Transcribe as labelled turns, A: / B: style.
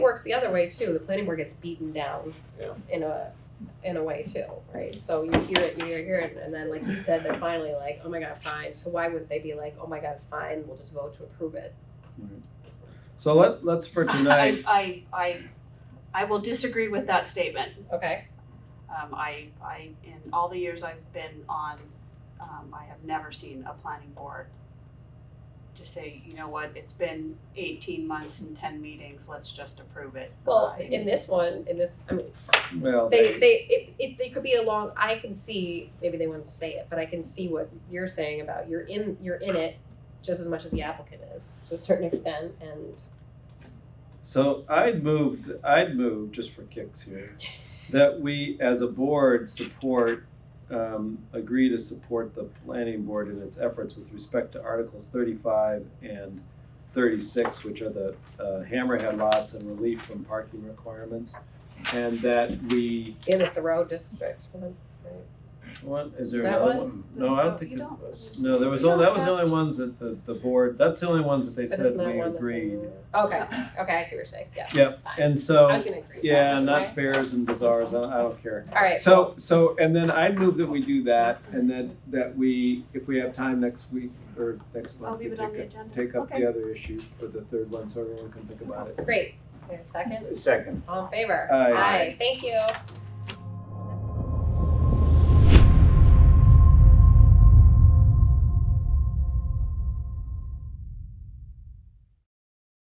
A: works the other way too. The planning board gets beaten down
B: Yeah.
A: in a in a way too, right? So you hear it, you hear it, hear it, and then like you said, they're finally like, oh my god, fine. So why wouldn't they be like, oh my god, fine? We'll just vote to approve it.
C: So let, let's for tonight,
D: I, I, I, I will disagree with that statement.
A: Okay.
D: Um, I, I, in all the years I've been on, um, I have never seen a planning board to say, you know what, it's been eighteen months and ten meetings, let's just approve it.
A: Well,
D: Bye.
A: in this one, in this, I mean,
C: well,
A: they they it, it they could be a long. I can see maybe they want to say it, but I can see what you're saying about you're in you're in it just as much as the applicant is to a certain extent, and
C: so I'd move, I'd move, just for kicks here, that we as a board support, um, agree to support the planning board in its efforts with respect to Articles thirty-five and thirty-six, which are the, uh, hammerhead lots and relief from parking requirements. And that we,
A: in the Thoreau district.
C: what, is there
A: Is that
C: another
A: one?
C: one? No, I don't
D: Oh,
C: think
D: you
C: there's,
D: don't.
C: no, there was,
D: You
C: only- that
D: don't
C: was the only ones that the, the board, that's the only ones that they
A: But
C: said
A: isn't that
C: we
A: one that they-
C: agreed.
A: Okay, okay, I see what you're saying. Yeah.
C: Yep, and so.
A: I was gonna agree. with
C: Yeah,
A: that,
C: not
A: okay?
C: fairs and bazaars, I, I don't care.
A: All right.
C: So, so, and then I'd move that we do that, and then that we, if we have time next week or next
D: I'll
C: month, we
D: leave it
C: take
D: on the
C: up,
D: agenda.
C: take up
D: Okay.
C: the other issue for the third one, so everyone can think about it.
A: Great. Wait a second.
B: Second.
A: All in favor?
C: Aye.
A: Thank you.